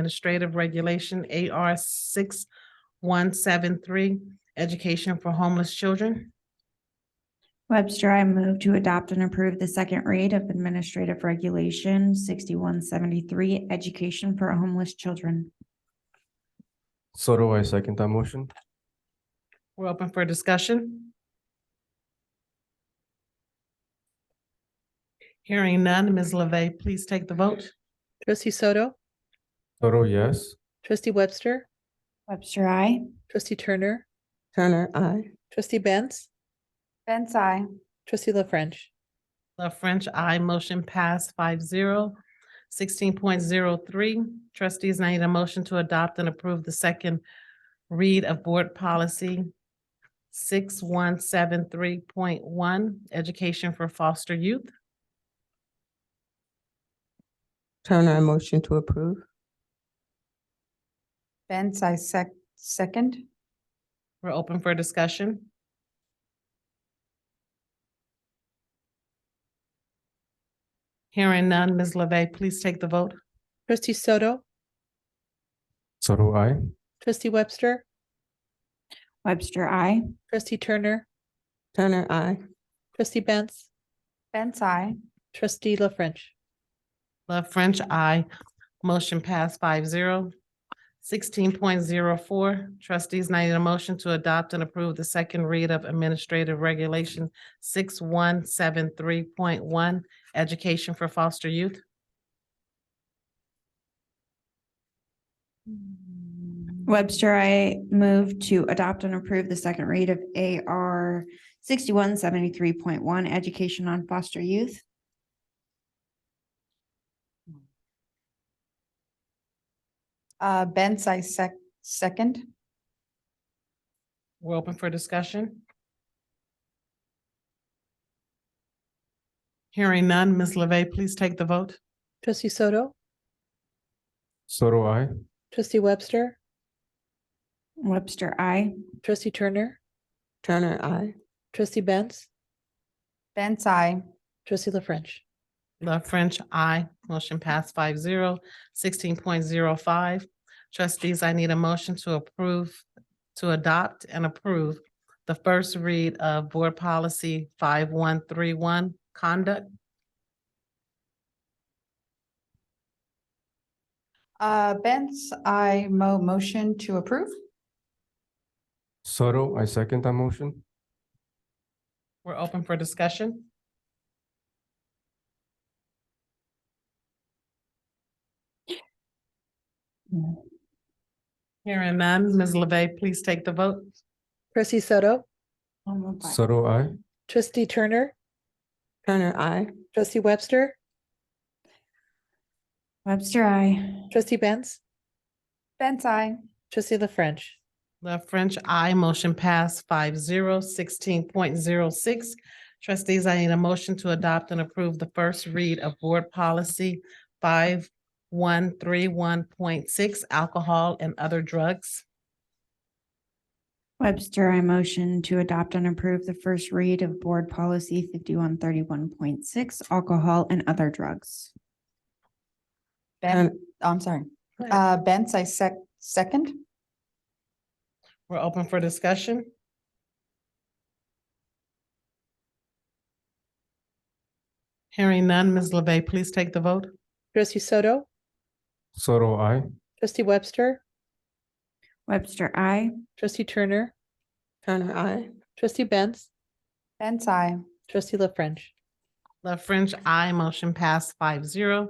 Administrative Regulation AR six one seven three, Education for Homeless Children. Webster, I move to adopt and approve the second read of Administrative Regulation sixty-one seventy-three, Education for Homeless Children. So do I second that motion. We're open for discussion. Hearing none, Ms. LeVey, please take the vote. Trustee Soto, Soto, yes. trustee Webster, Webster, I. trustee Turner, Turner, I. trustee Benz, Benz, I. trustee La French. The French, I motion pass five zero. Sixteen point zero three, trustees, I need a motion to adopt and approve the second read of board policy six one seven three point one, education for foster youth. Turner, I motion to approve. Benz, I sec- second. We're open for discussion. Hearing none, Ms. LeVey, please take the vote. Trustee Soto, Soto, I. trustee Webster, Webster, I. trustee Turner, Turner, I. trustee Benz, Benz, I. trustee La French. Love French, I. Motion passed five zero. Sixteen point zero four, trustees, I need a motion to adopt and approve the second read of Administrative Regulation six one seven three point one, Education for Foster Youth. Webster, I move to adopt and approve the second read of AR sixty-one seventy-three point one, Education on Foster Youth. Uh, Benz, I sec- second. We're open for discussion. Hearing none, Ms. LeVey, please take the vote. Trustee Soto, Soto, I. trustee Webster, Webster, I. trustee Turner, Turner, I. trustee Benz, Benz, I. trustee La French. Love French, I. Motion passed five zero. Sixteen point zero five. Trustees, I need a motion to approve, to adopt and approve the first read of Board Policy five one three one, Conduct. Uh, Benz, I mo- motion to approve. Soto, I second that motion. We're open for discussion. Hearing none, Ms. LeVey, please take the vote. Trustee Soto, Soto, I. trustee Turner, Turner, I. trustee Webster, Webster, I. trustee Benz, Benz, I. trustee La French. The French, I motion pass five zero sixteen point zero six. Trustees, I need a motion to adopt and approve the first read of board policy five one three one point six, alcohol and other drugs. Webster, I motion to adopt and approve the first read of Board Policy fifty-one thirty-one point six, Alcohol and Other Drugs. Ben, I'm sorry. Uh, Go ahead. Uh, Benz, I sec- second. We're open for discussion. Hearing none, Ms. LeVey, please take the vote. Trustee Soto, Soto, I. trustee Webster, Webster, I. trustee Turner, Turner, I. trustee Benz, Benz, I. trustee La French. The French, I motion pass five zero.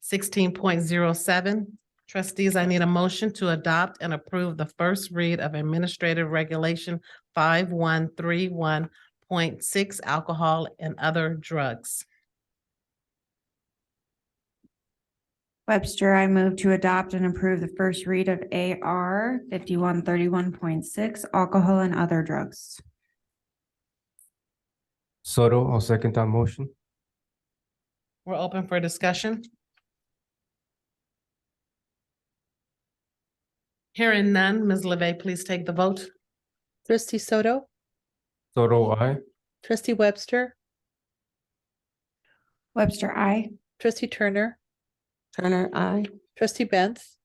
Sixteen point zero seven, trustees, I need a motion to adopt and approve the first read of Administrative Regulation five one three one point six, alcohol and other drugs. Webster, I move to adopt and approve the first read of AR fifty-one thirty-one point six, Alcohol and Other Drugs. Soto, I'll second that motion. We're open for discussion. Hearing none, Ms. LeVey, please take the vote. Trustee Soto, Soto, I. trustee Webster, Webster, I. trustee Turner, Turner, I. trustee Benz,